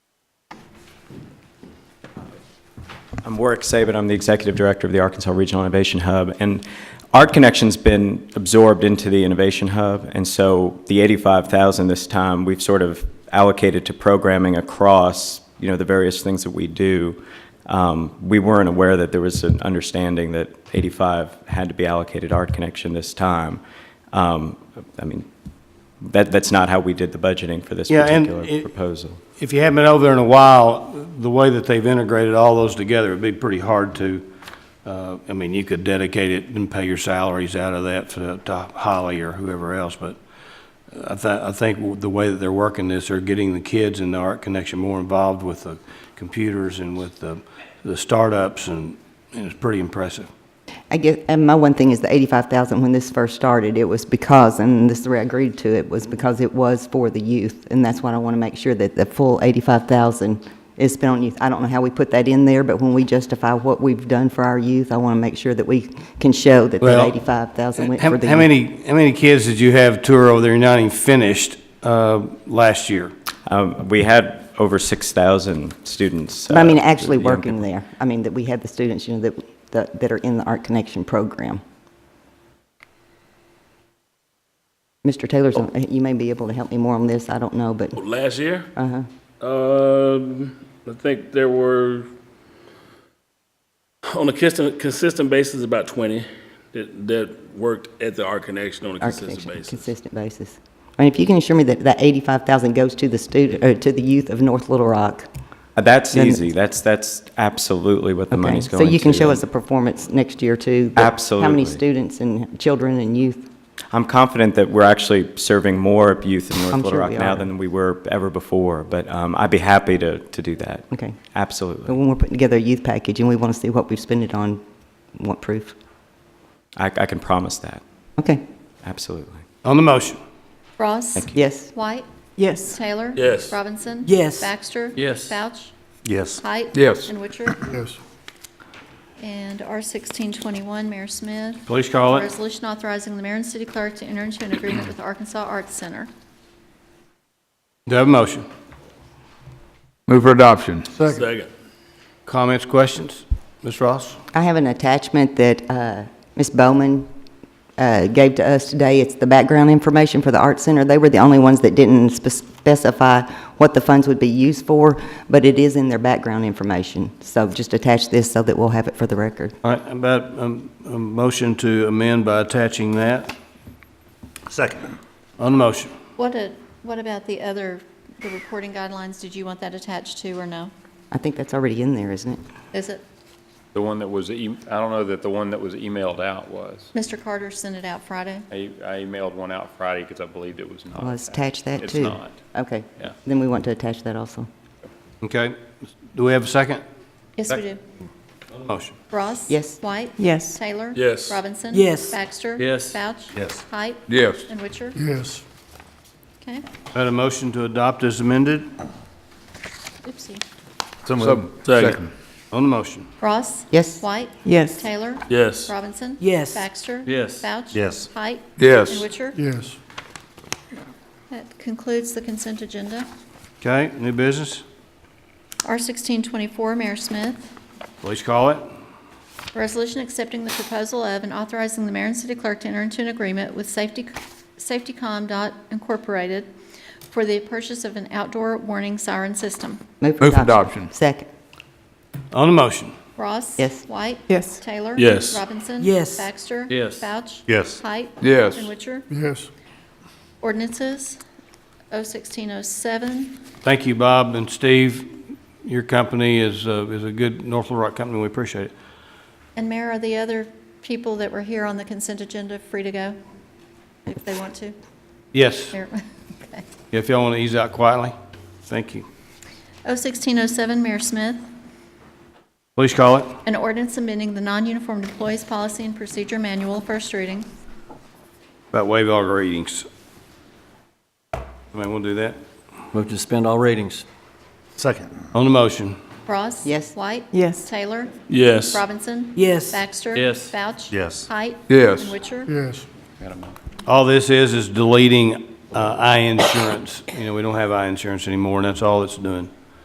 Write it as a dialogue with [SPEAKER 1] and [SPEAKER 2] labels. [SPEAKER 1] I'm Warwick Saban. I'm the executive director of the Arkansas Regional Innovation Hub. And Art Connection's been absorbed into the Innovation Hub. And so the 85,000 this time, we've sort of allocated to programming across, you know, the various things that we do. Um, we weren't aware that there was an understanding that 85 had to be allocated Art Connection this time. Um, I mean, that, that's not how we did the budgeting for this
[SPEAKER 2] Yeah, and
[SPEAKER 1] particular
[SPEAKER 2] it-
[SPEAKER 1] proposal.
[SPEAKER 2] If you haven't been over there in a while, the way that they've integrated all those together, it'd be pretty hard to, uh, I mean, you could dedicate it and pay your salaries out of that to to Holly or whoever else, but I thi- I think the way that they're working this, they're getting the kids in the Art Connection more involved with the computers and with the, the startups, and and it's pretty impressive.
[SPEAKER 3] I guess, and my one thing is the eighty-five thousand, when this first started, it was because, and this is where I agreed to it, was because it was for the youth, and that's why I want to make sure that the full eighty-five thousand is spent on youth. I don't know how we put that in there, but when we justify what we've done for our youth, I want to make sure that we can show that that
[SPEAKER 2] Well,
[SPEAKER 3] eighty-five thousand went
[SPEAKER 2] How
[SPEAKER 3] for the youth.
[SPEAKER 2] how many, how many kids did you have tour over there, not even finished, uh, last year?
[SPEAKER 1] Um, we had over 6,000 students.
[SPEAKER 3] But I mean,
[SPEAKER 1] uh,
[SPEAKER 3] actually
[SPEAKER 1] young people.
[SPEAKER 3] working there, I mean, that we had the students, you know, that- that, that are in the Art Connection program. Mr. Taylor's,
[SPEAKER 2] Oh.
[SPEAKER 3] uh, you may be able to help me more on this, I don't know, but.
[SPEAKER 4] Last year? Uh-huh. Um, I think there were, on a consistent, consistent basis, about twenty that, that worked at the Art Connection on a consistent
[SPEAKER 3] Architecture,
[SPEAKER 4] basis.
[SPEAKER 3] Consistent basis. I mean, if you can assure me that that 85,000 goes to the student, or to the youth of North Little Rock.
[SPEAKER 1] Uh, That's
[SPEAKER 3] Then-
[SPEAKER 1] easy. That's, that's absolutely what the
[SPEAKER 3] okay.
[SPEAKER 1] money's going to.
[SPEAKER 3] So you can show us a performance next year, too. that- How
[SPEAKER 1] Absolutely.
[SPEAKER 3] many students and children and youth?
[SPEAKER 1] I'm confident that we're actually serving more youth in North
[SPEAKER 3] I'm
[SPEAKER 1] Little
[SPEAKER 3] sure
[SPEAKER 1] Rock
[SPEAKER 3] we
[SPEAKER 1] now
[SPEAKER 3] are.
[SPEAKER 1] than we were ever before, but um, I'd be happy to, to do that.
[SPEAKER 3] Okay. But
[SPEAKER 1] Absolutely.
[SPEAKER 3] when we're putting together a youth package, and we want to see what we've spent it on, want proof?
[SPEAKER 1] I, I can promise that.
[SPEAKER 3] Okay,
[SPEAKER 1] Absolutely.
[SPEAKER 2] On the motion.
[SPEAKER 5] Ross.
[SPEAKER 3] yes.
[SPEAKER 5] White.
[SPEAKER 6] Yes.
[SPEAKER 5] Taylor.
[SPEAKER 4] Yes.
[SPEAKER 5] Robinson.
[SPEAKER 6] Yes.
[SPEAKER 5] Baxter.
[SPEAKER 4] Yes.
[SPEAKER 5] Vouch.
[SPEAKER 7] Yes.
[SPEAKER 5] Height.
[SPEAKER 7] Yes.
[SPEAKER 5] And Witcher.
[SPEAKER 7] Yes.
[SPEAKER 5] And R sixteen twenty-one, Mayor Smith.
[SPEAKER 2] Please call it.
[SPEAKER 5] Resolution authorizing the mayor and city clerk to enter into an agreement with Arkansas Arts Center.
[SPEAKER 2] Do I have a motion?
[SPEAKER 7] Move for adoption.
[SPEAKER 4] Second.
[SPEAKER 2] Comments, questions? Ms. Ross?
[SPEAKER 3] I have an attachment that uh, Ms. Bowman uh, gave to us today. It's the background information for the Art Center. They were the only ones that didn't spe- specify what the funds would be used for, but it is in their background information. So just attach this so that we'll have it for the record.
[SPEAKER 2] All right, about um, a motion to amend by attaching that
[SPEAKER 7] Second.
[SPEAKER 2] on the motion.
[SPEAKER 5] What a, what about the other, the reporting guidelines? Did you want that attached to or no?
[SPEAKER 3] I think that's already in there, isn't it?
[SPEAKER 5] Is it,
[SPEAKER 8] The one that was, e- I don't know that the one that was emailed out was.
[SPEAKER 5] Mr. Carter sent it out Friday?
[SPEAKER 8] I I emailed one out Friday because I believed it was not.
[SPEAKER 3] Well, let's attach that, too.
[SPEAKER 8] Oh, It's not.
[SPEAKER 3] Okay.
[SPEAKER 8] Yeah.
[SPEAKER 3] Then we want to attach that also.
[SPEAKER 2] Okay, do we have a second?
[SPEAKER 5] Yes, we do.
[SPEAKER 2] Motion.
[SPEAKER 5] Ross.
[SPEAKER 3] Yes.
[SPEAKER 5] White.
[SPEAKER 6] Yes.
[SPEAKER 5] Taylor.
[SPEAKER 4] Yes.
[SPEAKER 5] Robinson.
[SPEAKER 6] Yes.
[SPEAKER 5] Baxter.
[SPEAKER 4] Yes.
[SPEAKER 5] Vouch.
[SPEAKER 7] Yes.
[SPEAKER 5] Height.
[SPEAKER 7] Yes.
[SPEAKER 5] And Witcher.
[SPEAKER 7] Yes.
[SPEAKER 5] Okay.
[SPEAKER 2] Got a motion to adopt as amended
[SPEAKER 5] Oopsie.
[SPEAKER 7] So moved.
[SPEAKER 4] Second.
[SPEAKER 2] on the motion.
[SPEAKER 5] Ross.
[SPEAKER 3] Yes.
[SPEAKER 5] White.
[SPEAKER 6] Yes.
[SPEAKER 5] Taylor.
[SPEAKER 4] Yes.
[SPEAKER 5] Robinson.
[SPEAKER 6] Yes.
[SPEAKER 5] Baxter.
[SPEAKER 4] Yes.
[SPEAKER 5] Vouch.
[SPEAKER 7] Yes.
[SPEAKER 5] Height.
[SPEAKER 7] Yes.
[SPEAKER 5] And Witcher.
[SPEAKER 7] Yes.
[SPEAKER 5] That concludes the consent agenda.
[SPEAKER 2] Okay, new business,
[SPEAKER 5] R sixteen twenty-four, Mayor Smith.
[SPEAKER 2] please call it.
[SPEAKER 5] Resolution accepting the proposal of and authorizing the mayor and city clerk to enter into an agreement with Safety, Safetycom dot Incorporated for the purchase of an outdoor warning siren system.
[SPEAKER 7] Move for adoption.
[SPEAKER 3] Second.
[SPEAKER 2] On the motion,
[SPEAKER 5] Ross.
[SPEAKER 3] Yes.
[SPEAKER 5] White.
[SPEAKER 6] Yes.
[SPEAKER 5] Taylor.
[SPEAKER 4] Yes.
[SPEAKER 5] Robinson.
[SPEAKER 6] Yes.
[SPEAKER 5] Baxter.
[SPEAKER 4] Yes.
[SPEAKER 5] Vouch.
[SPEAKER 7] Yes.
[SPEAKER 5] Height.
[SPEAKER 7] Yes.
[SPEAKER 5] And Witcher.
[SPEAKER 7] Yes.
[SPEAKER 5] Ordinances, O sixteen oh seven.
[SPEAKER 2] thank you, Bob and Steve. Your company is, uh, is a good North Little Rock company, we appreciate it.
[SPEAKER 5] And Mayor, are the other people that were here on the consent agenda free to go if they want to?
[SPEAKER 2] Yes,
[SPEAKER 5] Mayor- okay.
[SPEAKER 2] if y'all want to ease out quietly, thank you.
[SPEAKER 5] O sixteen oh seven, Mayor Smith.
[SPEAKER 2] Please call it.
[SPEAKER 5] An ordinance amending the non-uniformed employees policy and procedure manual, first reading.
[SPEAKER 2] About waive all readings. Somebody want to do that?
[SPEAKER 9] Move to suspend all ratings.
[SPEAKER 7] Second.
[SPEAKER 2] On the motion,
[SPEAKER 5] Ross?
[SPEAKER 3] Yes.
[SPEAKER 5] White?
[SPEAKER 6] Yes.
[SPEAKER 5] Taylor?
[SPEAKER 4] Yes.
[SPEAKER 5] Robinson?
[SPEAKER 6] Yes.
[SPEAKER 5] Baxter?
[SPEAKER 4] Yes.
[SPEAKER 5] Vouch?
[SPEAKER 7] Yes.
[SPEAKER 5] Height?
[SPEAKER 7] Yes.
[SPEAKER 5] And Witcher?
[SPEAKER 7] Yes.
[SPEAKER 2] All this is, is deleting uh, eye insurance. You know, we don't have eye insurance anymore, and that's all it's doing.